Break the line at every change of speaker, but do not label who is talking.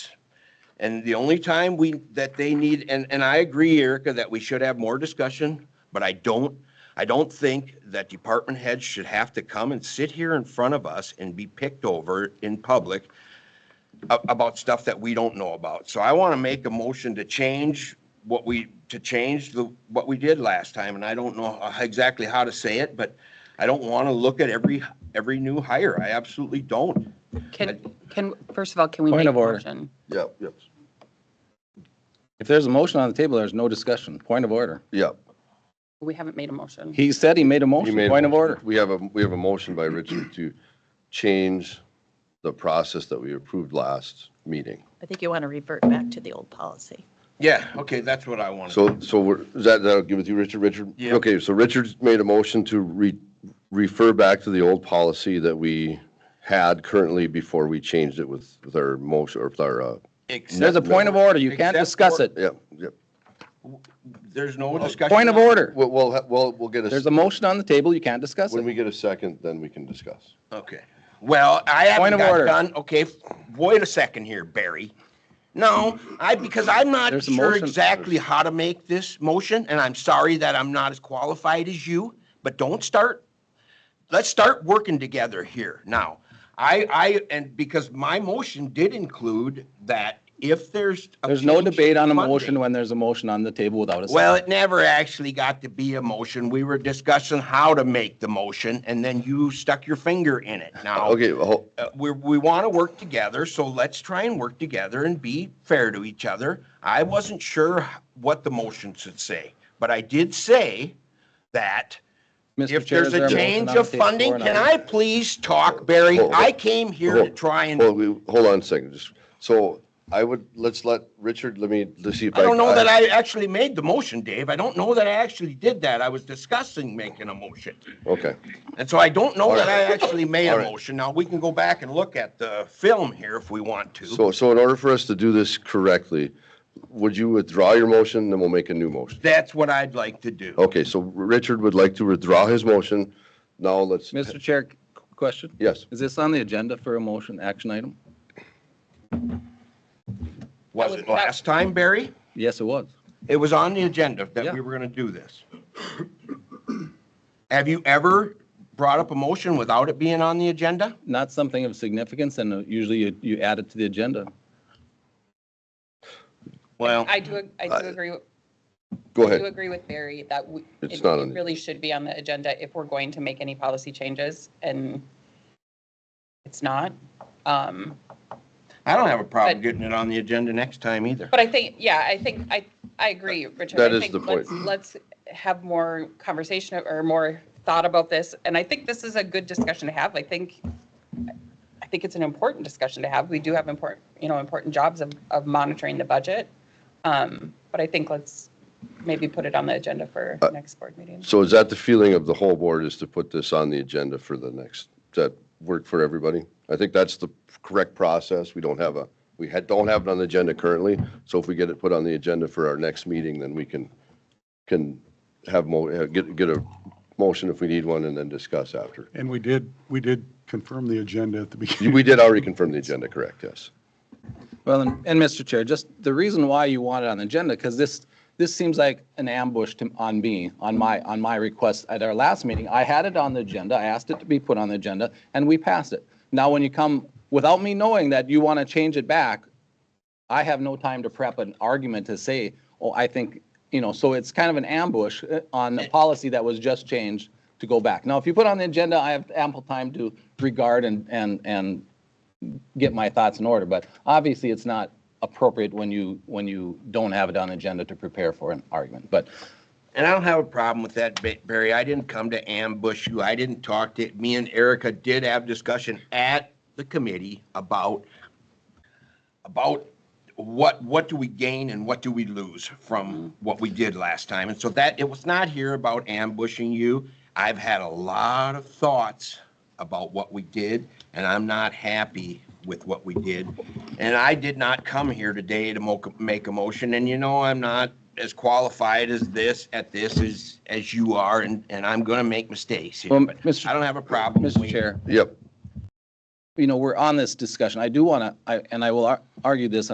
And the only time we, that they need, and, and I agree, Erica, that we should have more discussion, but I don't, I don't think that department heads should have to come and sit here in front of us and be picked over in public a- about stuff that we don't know about. So I want to make a motion to change what we, to change the, what we did last time, and I don't know exactly how to say it, but I don't want to look at every, every new hire. I absolutely don't.
Can, can, first of all, can we
Point
make a
of order.
motion?
Yep, yep,
If there's a motion on the table, there's no discussion. Point of order.
yep.
We haven't made a motion.
He said he made a
You
motion.
made a
Point of
motion.
order.
We have a, we have a motion by Richard to change the process that we approved last meeting.
I think you want to revert back to the old policy.
Yeah, okay, that's what I want to.
So, so we're, is that, that'll give it to you, Richard, Richard?
Yeah.
Okay, so Richard's made a motion to re, refer back to the old policy that we had currently before we changed it with, with our motion, or with our, uh,
There's a point of order. You can't
Except
discuss
for-
it.
yep, yep.
There's no discussion.
Point of order.
We'll, we'll, ha- we'll we'll get
There's
a,
a motion on the table. You can't discuss
when
it.
we get a second, then we can discuss.
Okay. Well, I haven't
Point of
got
order.
done, okay, wait a second here, Barry. No, I, because I'm not
There's a
sure
motion.
exactly how to make this motion, and I'm sorry that I'm not as qualified as you, but don't start, let's start working together here now. I, I, and because my motion did include that if there's. a
There's no
change
debate on a
Monday-
motion when there's a motion on the table without a
Well,
second.
it never actually got to be a motion. We were discussing how to make the motion, and then you stuck your finger in it. Now,
Okay, well, hold-
uh, we, we want to work together, so let's try and work together and be fair to each other. I wasn't sure what the motion should say, but I did say that
Mr.
if
Chair,
there's
is there
a
motion
change
on the
of
table
funding,
or not?
can I please talk, Barry?
Hold-
I came here to
hold-
try and,
Hold, we- hold on a second, just, so I would, let's let, Richard, let me, let's see if I.
I don't know that I actually made the motion, Dave. I don't know that I actually did that. I was discussing making a motion.
uh, Okay,
And so I don't know
All
that I
right.
actually made a
All right.
motion. Now, we can go back and look at the film here if we want to.
so, so in order for us to do this correctly, would you withdraw your motion, then we'll make a new motion?
That's what I'd like to do.
Okay, so Richard would like to withdraw his motion, now let's,
Mr. Chair, c- question?
yes,
Is this on the agenda for a motion, action item?
Was it last time, Barry?
Yes, it was.
It was on the agenda that
Yeah.
we were going to do this. Have you ever brought up a motion without it being on the agenda?
Not something of significance and uh, usually you, you add it to the agenda.
Well,
I do, I do agree,
go
I do
Uh, ahead,
agree with Barry that we,
It's
it
not on-
it really should be on the agenda if we're going to make any policy changes and it's not. Um,
I don't have a problem
But-
getting it on the agenda next time either.
But I think, yeah, I think, I, I agree, Richard.
That
I
is
think
the point.
Let's let's have more conversation or more thought about this. And I think this is a good discussion to have. I think, I think it's an important discussion to have. We do have important, you know, important jobs of, of monitoring the budget. Um, But I think let's maybe put it on the agenda for
Uh,
next board meeting.
so is that the feeling of the whole board, is to put this on the agenda for the next, does that work for everybody? I think that's the correct process, we don't have a, we had, don't have it on the agenda currently, so if we get it put on the agenda for our next meeting, then we can, can have mo, uh, get, get a motion if we need one, and then discuss after.
And we did, we did confirm the agenda at the beginning.
You- We did already confirm the agenda, correct, yes.
Well, and, and Mr. Chair, just the reason why you want it on the agenda, because this, this seems like an ambush to, on me, on my, on my request. At our last meeting, I had it on the agenda, I asked it to be put on the agenda, and we passed it. Now, when you come, without me knowing that you want to change it back, I have no time to prep an argument to say, oh, I think, you know, so it's kind of an ambush uh, on a policy that was just changed to go back. Now, if you put on the agenda, I have ample time to regard and, and, and get my thoughts in order, but obviously it's not appropriate when you, when you don't have it on agenda to prepare for an argument. But
And I don't have a problem with that, Ba- Barry. I didn't come to ambush you. I didn't talk to, me and Erica did have discussion at the committee about, about what, what do we gain and what do we lose from what we did last time? And so that, it was not here about ambushing you. I've had a lot of thoughts about what we did, and I'm not happy with what we did. And I did not come here today to mo- make a motion, and you know, I'm not as qualified as this, at this as, as you are, and, and I'm gonna make mistakes here,
Well,
but
Mr.
I don't have a problem.
Mr.
with-
Chair,
Yep.
you know, we're on this discussion. I do want to, I and I will ar- argue this